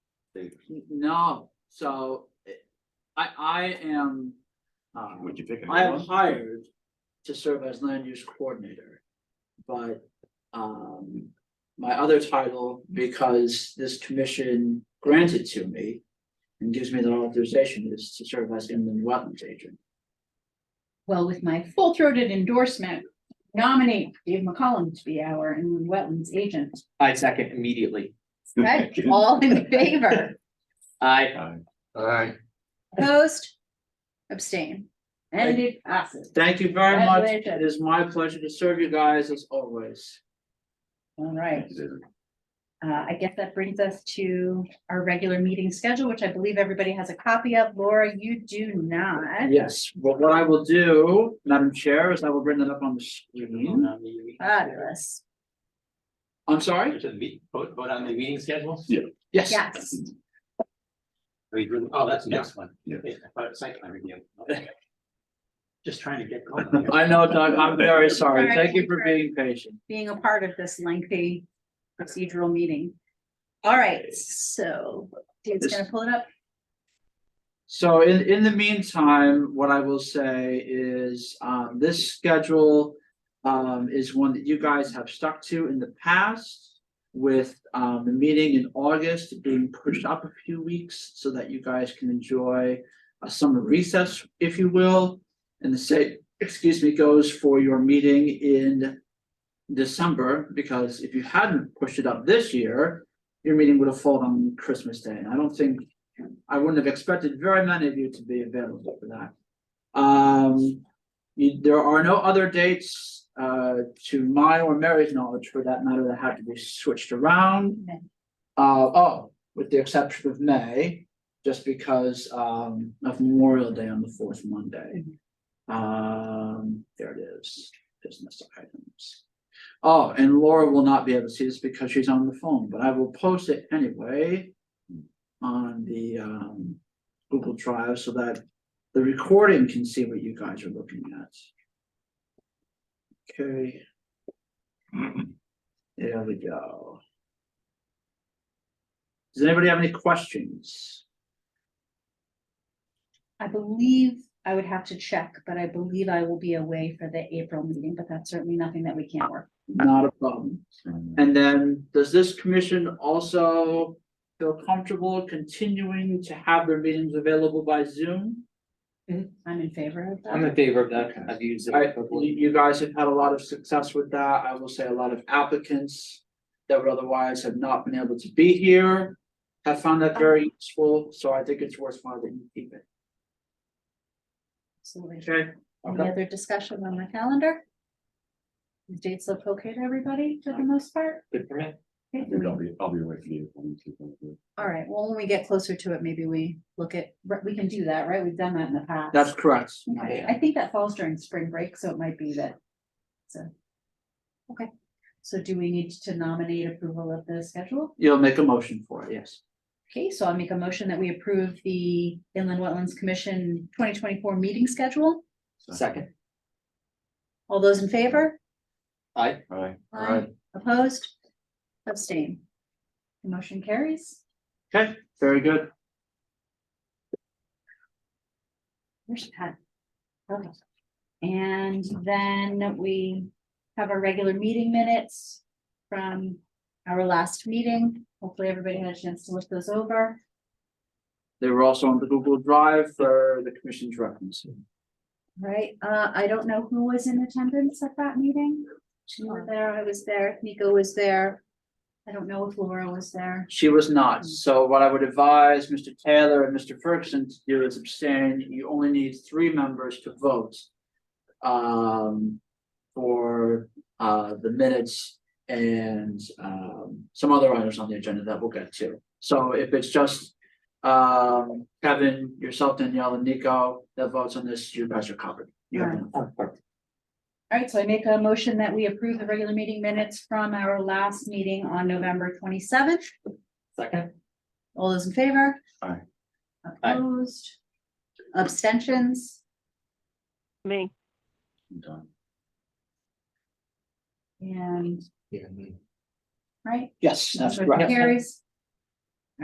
They- N- No, so it- I, I am. uh, Would you pick I am anyone? hired to serve as land use coordinator. But, um, my other title, because this commission granted to me and gives me the authorization is to serve as inland wetlands agent. Well, with my full throated endorsement, nominate Dave McCollum to be our inland wetlands agent. I second immediately. Right? all in favor, I, Uh, Alright. opposed, abstain, and it passes. Thank you very much. It Congratulations. is my pleasure to serve you guys as always. All right, uh, I guess that brings us to our regular meeting schedule, which I believe everybody has a copy of. Laura, you do not. Yes, but what I will do, Madam Chair, is I will bring that up on the screen. Fabulous. I'm sorry? Should we vote, vote on the meeting schedule? Yes. Yes, We really- oh, that's the next one. Yeah. I thought it was site plan review. Okay. Just trying to get. going here. I know, Doug, I'm very sorry. Alright, Thank you for sure. being patient. being a part of this lengthy procedural meeting. All right, so Dave's This- gonna pull it up. So in, in the meantime, what I will say is, um, this schedule. Um, is one that you guys have stuck to in the past. With, um, the meeting in August being pushed up a few weeks so that you guys can enjoy. A summer recess, if you will, and the same, excuse me, goes for your meeting in. December, because if you hadn't pushed it up this year, your meeting would have fallen on Christmas Day, and I don't think I wouldn't have expected very many of you to be available for that. Um, you- there are no other dates, uh, to my or Mary's knowledge for that matter that had to be switched around. May. Uh, oh, with the exception of May, just because, um, of Memorial Day on the fourth Monday. Um, there it is, business items. Oh, and Laura will not be able to see this because she's on the phone, but I will post it anyway on the um Google Drive so that the recording can see what you guys are looking at. Okay, there we go. Does anybody have any questions? I believe I would have to check, but I believe I will be away for the April meeting, but that's certainly nothing that we can't work. Not a problem. And then, does this commission also feel comfortable continuing to have their meetings available by Zoom? I'm in favor of I'm that. in favor of that. I've used it. I, you, before. you guys have had a lot of success with that. I will say a lot of applicants that would otherwise have not been able to be here have found that very useful, so I think it's worthwhile that you keep it. Absolutely. Okay. Any other discussion on the calendar? The Dates look okay to everybody for the most part? Good for me. Okay. I'll be, I'll be away for you. All right, well, when we get closer to it, maybe we look at, right, we can do that, right? We've done that in the past. That's correct. Okay, I think that falls during spring break, so it might be that, so. Okay, so do we need to nominate approval of the schedule? You'll make a motion for it, yes. Okay, so I'll make a motion that we approve the Inland Wetlands Commission twenty twenty-four meeting schedule. Second. All those in favor? I, Alright. Opposed? Abstain. The Motion carries. Okay, very good. Where's Pat? Okay. And then we have our regular meeting minutes from our last meeting. Hopefully, everybody had a chance to look those over. They were also on the Google Drive for the commission's reference. Right, uh, I don't know who was in attendance at that meeting. You were there, I was there, Nico was there. I don't know if Laura was there. She was not, so what I would advise Mr. Taylor and Mr. Ferguson to do is abstain, you only need three members to vote. Um, for, uh, the minutes and, um, some other items on the agenda that we'll get to. So if it's just, um, Kevin, yourself, Danielle and Nico that votes on this, you guys are covered. You have enough. oh, perfect. All right, so I make a motion that we approve the regular meeting minutes from our last meeting on November twenty-seventh. second. All those in favor? Aye. Aye. Opposed? Abstentions? Me. And, Yeah, me. right? Yes, that's Motion correct. Carries.